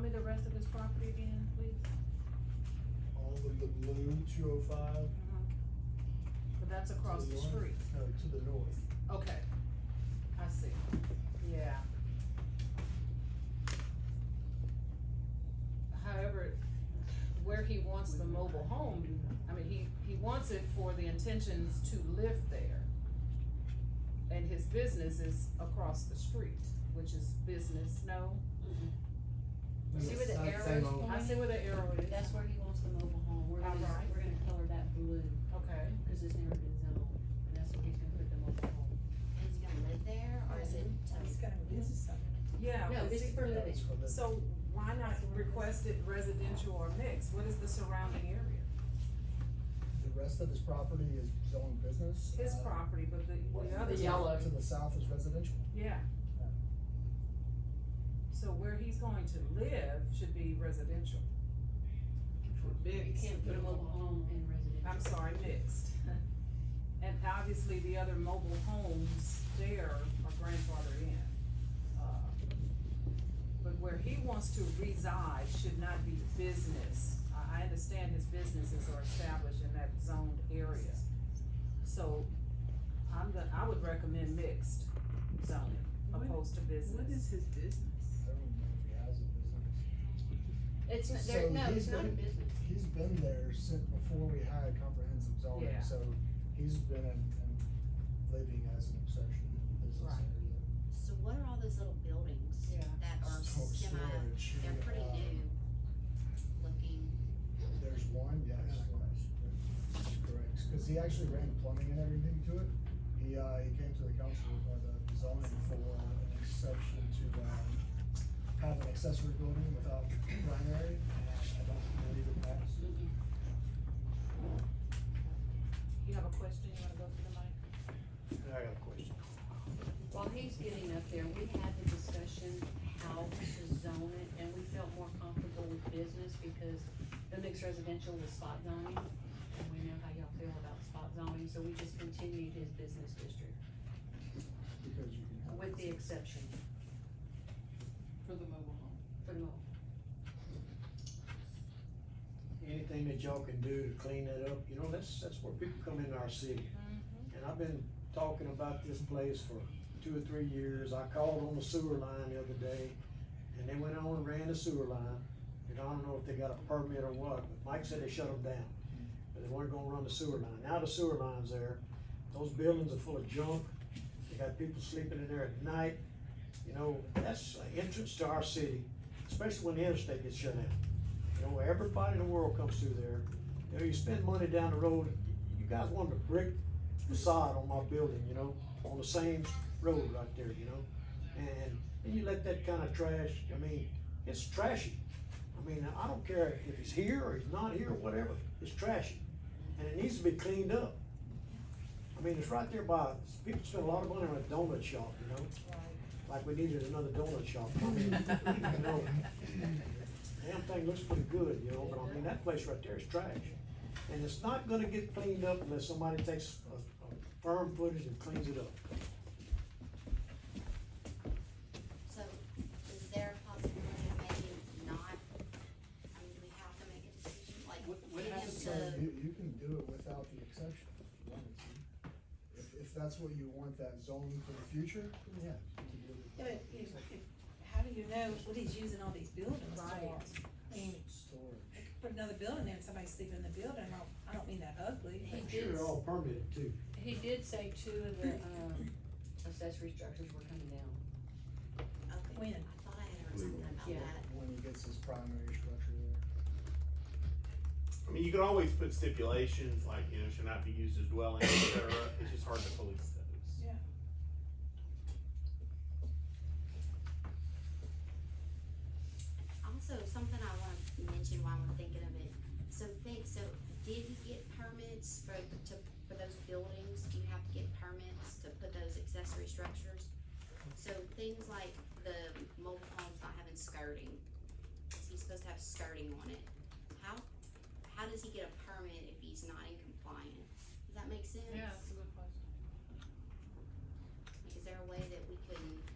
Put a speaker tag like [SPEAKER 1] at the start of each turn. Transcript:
[SPEAKER 1] me the rest of his property again, please?
[SPEAKER 2] all of the blue two oh five.
[SPEAKER 1] But that's across the street,
[SPEAKER 2] No, to the north.
[SPEAKER 1] okay, I see, yeah. However, where he wants the mobile home, I mean, he, he wants it for the intentions to live there. And his business is across the street, which is business, no?
[SPEAKER 3] See where the
[SPEAKER 2] Same-
[SPEAKER 3] arrow
[SPEAKER 2] same
[SPEAKER 3] is
[SPEAKER 2] old-
[SPEAKER 3] pointing?
[SPEAKER 1] I see where the arrow is,
[SPEAKER 3] That's where he wants the mobile home, we're gonna,
[SPEAKER 1] Alright.
[SPEAKER 3] we're gonna color that blue,
[SPEAKER 1] okay.
[SPEAKER 3] cause it's never been zoned, and that's where he's gonna put the mobile home.
[SPEAKER 4] And he's gonna live there, or is it?
[SPEAKER 5] It's gonna, this is something.
[SPEAKER 6] Yeah,
[SPEAKER 3] No,
[SPEAKER 6] but
[SPEAKER 3] this
[SPEAKER 6] see-
[SPEAKER 3] is for living,
[SPEAKER 6] so why not request it residential or mixed? What is the surrounding area?
[SPEAKER 2] The rest of his property is zone business.
[SPEAKER 6] His
[SPEAKER 2] uh,
[SPEAKER 6] property, but the,
[SPEAKER 2] to
[SPEAKER 6] the other.
[SPEAKER 1] yellow.
[SPEAKER 2] To the south is residential.
[SPEAKER 6] Yeah. So where he's going to live should be residential.
[SPEAKER 3] you
[SPEAKER 6] Mixed.
[SPEAKER 3] can't put a mobile home in residential.
[SPEAKER 6] I'm sorry, mixed. And obviously, the other mobile homes there are grandfathered in. Uh, But where he wants to reside should not be business. I, I understand his businesses are established in that zoned area. So I'm gonna, I would recommend mixed zoning opposed to business.
[SPEAKER 7] What is his business?
[SPEAKER 2] I don't know if he has a business.
[SPEAKER 3] It's, not-
[SPEAKER 2] So
[SPEAKER 3] there, no,
[SPEAKER 2] he's
[SPEAKER 3] it's not a
[SPEAKER 2] gonna-
[SPEAKER 3] business.
[SPEAKER 2] He's been there since before we had comprehensive zoning,
[SPEAKER 6] Yeah.
[SPEAKER 2] so he's been in, in living as an exception in the business
[SPEAKER 6] Right.
[SPEAKER 2] area.
[SPEAKER 4] So what are all these little buildings
[SPEAKER 1] Yeah.
[SPEAKER 4] that are
[SPEAKER 2] Stor-
[SPEAKER 4] semi,
[SPEAKER 2] storage,
[SPEAKER 4] they're pretty
[SPEAKER 2] uh,
[SPEAKER 4] new looking?
[SPEAKER 2] There's one, yes, that's correct, cause he actually ran plumbing and everything to it. He, uh, he came to the council, or the zoning for an exception to, um, have an accessory building without primary, and I don't believe it passed.
[SPEAKER 1] You have a question, you wanna go through the mic?
[SPEAKER 2] I got a question.
[SPEAKER 3] While he's getting up there, we had the discussion how to zone it, and we felt more comfortable with business because the mixed residential was spot zoning. And we know how y'all feel about spot zoning, so we just continued his business district
[SPEAKER 2] Because you can have.
[SPEAKER 3] with the exception
[SPEAKER 7] For the mobile home.
[SPEAKER 3] for no.
[SPEAKER 8] anything that y'all can do to clean that up, you know, that's, that's where people come into our city. And I've been talking about this place for two or three years, I called on the sewer line the other day, and they went on and ran the sewer line, and I don't know if they got a permit or what, but Mike said they shut them down. But they weren't gonna run the sewer line, now the sewer line's there, those buildings are full of junk, they got people sleeping in there at night, you know, that's an entrance to our city, especially when the interstate gets shut down. You know, everybody in the world comes through there. You know, you spend money down the road, you guys wanted a brick facade on my building, you know, on the same road right there, you know? And then you let that kind of trash, I mean, it's trashy. I mean, I don't care if he's here or he's not here or whatever, it's trashy. And it needs to be cleaned up. I mean, it's right there by, people spend a lot of money on a donut shop, you know? Like we needed another donut shop. I mean, you know, Damn thing looks pretty good, you know, but I mean, that place right there is trash. And it's not gonna get cleaned up unless somebody takes a, a firm footage and cleans it up.
[SPEAKER 4] So is there a possibility of maybe not, I mean, do we have to make a decision, like,
[SPEAKER 7] What- what
[SPEAKER 4] get him
[SPEAKER 7] happens
[SPEAKER 5] uh,
[SPEAKER 2] So
[SPEAKER 4] to?
[SPEAKER 2] you, you can do it without the exception. if you wanted to. If, if that's what you want that zone for the future, yeah. you can do it.
[SPEAKER 5] Yeah, but if, if, how do you know what he's using all these buildings for?
[SPEAKER 6] Right.
[SPEAKER 5] I mean,
[SPEAKER 2] Storage.
[SPEAKER 5] I could put another building there and somebody's sleeping in the building, I don't, I don't mean that ugly,
[SPEAKER 3] He
[SPEAKER 8] I'm sure
[SPEAKER 3] did,
[SPEAKER 8] they're all permitted too.
[SPEAKER 3] he did say two of the, um, accessory structures were coming down.
[SPEAKER 4] Okay,
[SPEAKER 5] When?
[SPEAKER 4] I thought I had heard something about
[SPEAKER 3] Yeah.
[SPEAKER 4] that.
[SPEAKER 2] When he gets his primary structure there.
[SPEAKER 9] I mean, you can always put stipulations like, you know, should not be used as dwelling, et cetera. It's just hard to police those.
[SPEAKER 4] Also, something I want to mention while we're thinking of it, so think, so did he get permits for, to, for those buildings? Do you have to get permits to put those accessory structures? So things like the mobile homes not having skirting, is he supposed to have skirting on it? How, how does he get a permit if he's not in compliance? Does that make sense?
[SPEAKER 1] a good question.
[SPEAKER 4] Like, is there a way that we can